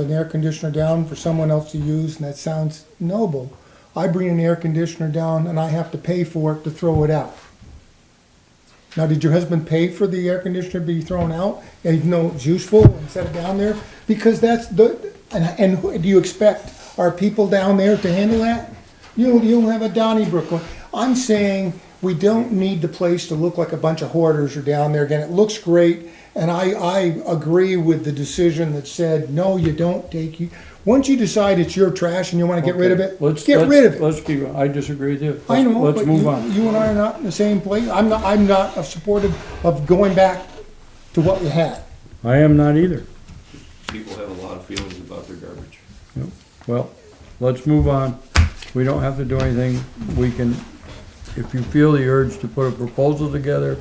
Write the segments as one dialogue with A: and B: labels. A: an air conditioner down for someone else to use, and that sounds noble. I bring an air conditioner down and I have to pay for it to throw it out. Now, did your husband pay for the air conditioner to be thrown out, and even though it's useful and set it down there? Because that's the, and, and who- do you expect our people down there to handle that? You, you don't have a Donnybrook one. I'm saying we don't need the place to look like a bunch of hoarders are down there again. It looks great, and I, I agree with the decision that said, no, you don't take, you, once you decide it's your trash and you wanna get rid of it,
B: Let's-
A: get
B: let's-
A: rid of it.
B: Let's be, I disagree with you.
A: I know,
B: Let's
A: but
B: move
A: you-
B: on.
A: you and I are not in the same place. I'm not, I'm not a supportive of going back to what we had.
B: I am not either.
C: people have a lot of feelings about their garbage.
B: Well, let's move on. We don't have to do anything. We can, if you feel the urge to put a proposal together,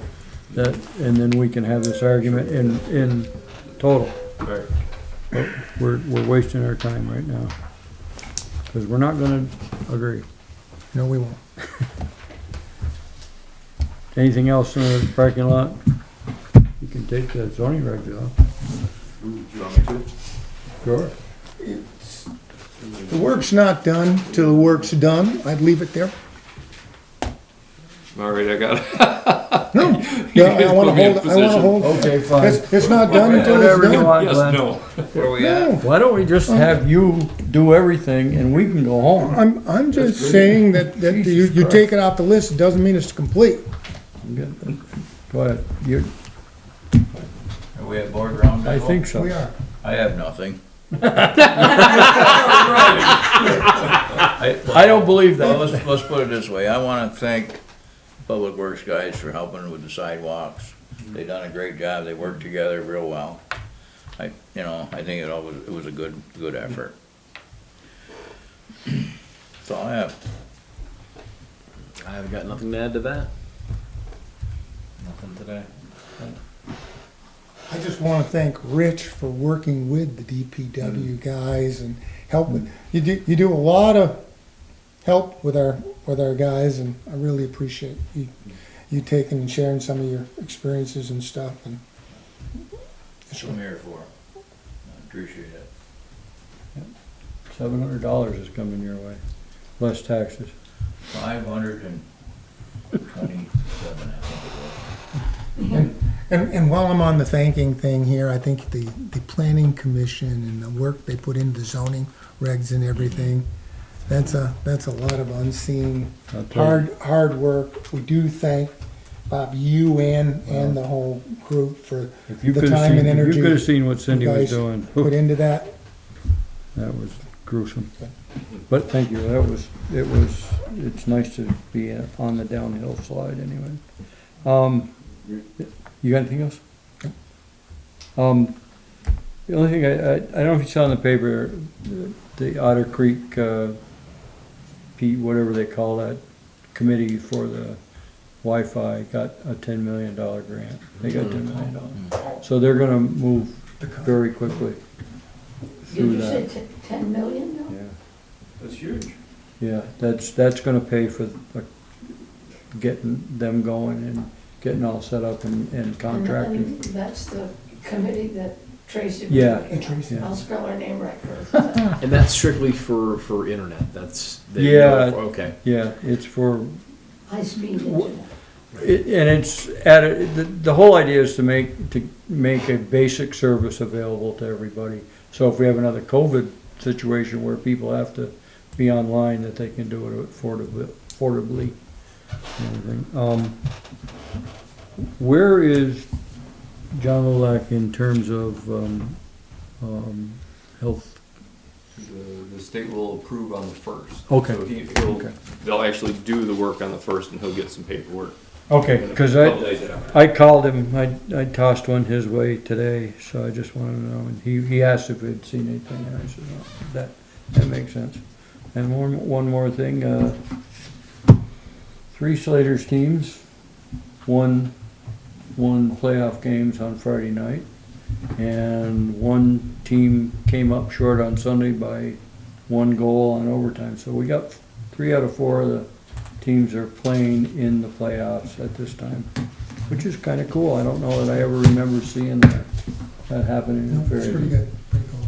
B: that, and then we can have this argument in, in total.
C: Right.
B: We're, we're wasting our time right now. Cause we're not gonna agree.
A: No, we won't.
B: Anything else in the parking lot? You can take the zoning reg off.
C: Do you want me to?
B: Sure.
A: The work's not done till the work's done. I'd leave it there.
C: All right, I got it.
A: No, no, I wanna hold, I wanna hold,
B: Okay, fine.
A: it's, it's not done until it's
B: Whatever you
A: done.
B: want, Glenn.
C: Where are we
A: No,
B: Why don't we just have you do everything and we can go home?
A: I'm, I'm just saying that, that you,
B: Jesus
A: you
B: Christ.
A: take it off the list, it doesn't mean it's complete.
B: Go ahead. You,
D: Are we at board roundtable?
B: I think so.
A: We are.
D: I have nothing.
B: I don't believe
D: Well,
B: that.
D: let's, let's put it this way, I wanna thank Public Works guys for helping with the sidewalks. They done a great job, they worked together real well. I, you know, I think it all was, it was a good, good effort. That's all I have.
E: I have got nothing to add to that. Nothing today.
A: I just want to thank Rich for working with the DPW guys and helping. You do, you do a lot of help with our, with our guys and I really appreciate you, you taking and sharing some of your experiences and stuff and
D: That's what I'm here for. I appreciate it.
B: Seven hundred dollars is coming your way, less taxes.
D: Five hundred and twenty-seven, I think it was.
A: And, and while I'm on the thanking thing here, I think the, the planning commission and the work they put into zoning regs and everything, that's a, that's a lot of unseen,
B: I'll tell you.
A: hard, hard work. We do thank Bob, you and, and the whole group for
B: If you
A: the
B: could've
A: time
B: seen,
A: and
B: if you
A: energy
B: could've seen what Cindy
A: you
B: was
A: guys
B: doing,
A: put into that.
B: that was gruesome. But thank you, that was, it was, it's nice to be on the downhill slide anyway. Um, you got anything else? Um, the only thing, I, I, I don't know if you saw in the paper, the Otter Creek, uh, P, whatever they call that, committee for the Wi-Fi got a ten million dollar grant. They got ten million dollars. So they're gonna move very quickly
F: Did
B: through
F: you
B: that.
F: say t- ten million though?
B: Yeah,
C: That's huge.
B: yeah, that's, that's gonna pay for uh, getting them going and getting all set up and, and
F: And-
B: contracting.
F: and That's the committee that Tracy. was
B: Yeah.
F: with.
B: Yeah.
F: I'll spell her name right first.
E: And that's strictly for for internet. That's they-
B: Yeah.
E: Okay.
B: Yeah, it's for,
F: High speed internet.
B: it- and it's at, a- the, the whole idea is to make, to make a basic service available to everybody. So if we have another COVID situation where people have to be online, that they can do it affordably, affordably. and everything. Um, where is John Lilac in terms of, um, um, health
C: The, the state will approve on the first.
B: Okay.
C: So he, he'll,
B: Okay.
C: they'll actually do the work on the first and he'll get some paperwork.
B: Okay, because
C: Couple
B: I,
C: days after.
B: I called him, I, I tossed one his way today, so I just wanted to know, and he, he asked if we'd seen anything, and I said, no, that, that makes sense. And one, one more thing, uh, three Slater's teams won, won playoff games on Friday night, and one team came up short on Sunday by one goal on overtime, so we got three out of four of the teams are playing in the playoffs at this time, which is kind of cool. I don't know that I ever remember seeing that, that happening
A: No,
B: in
A: It's pretty
B: Fairview.
A: good, pretty cool.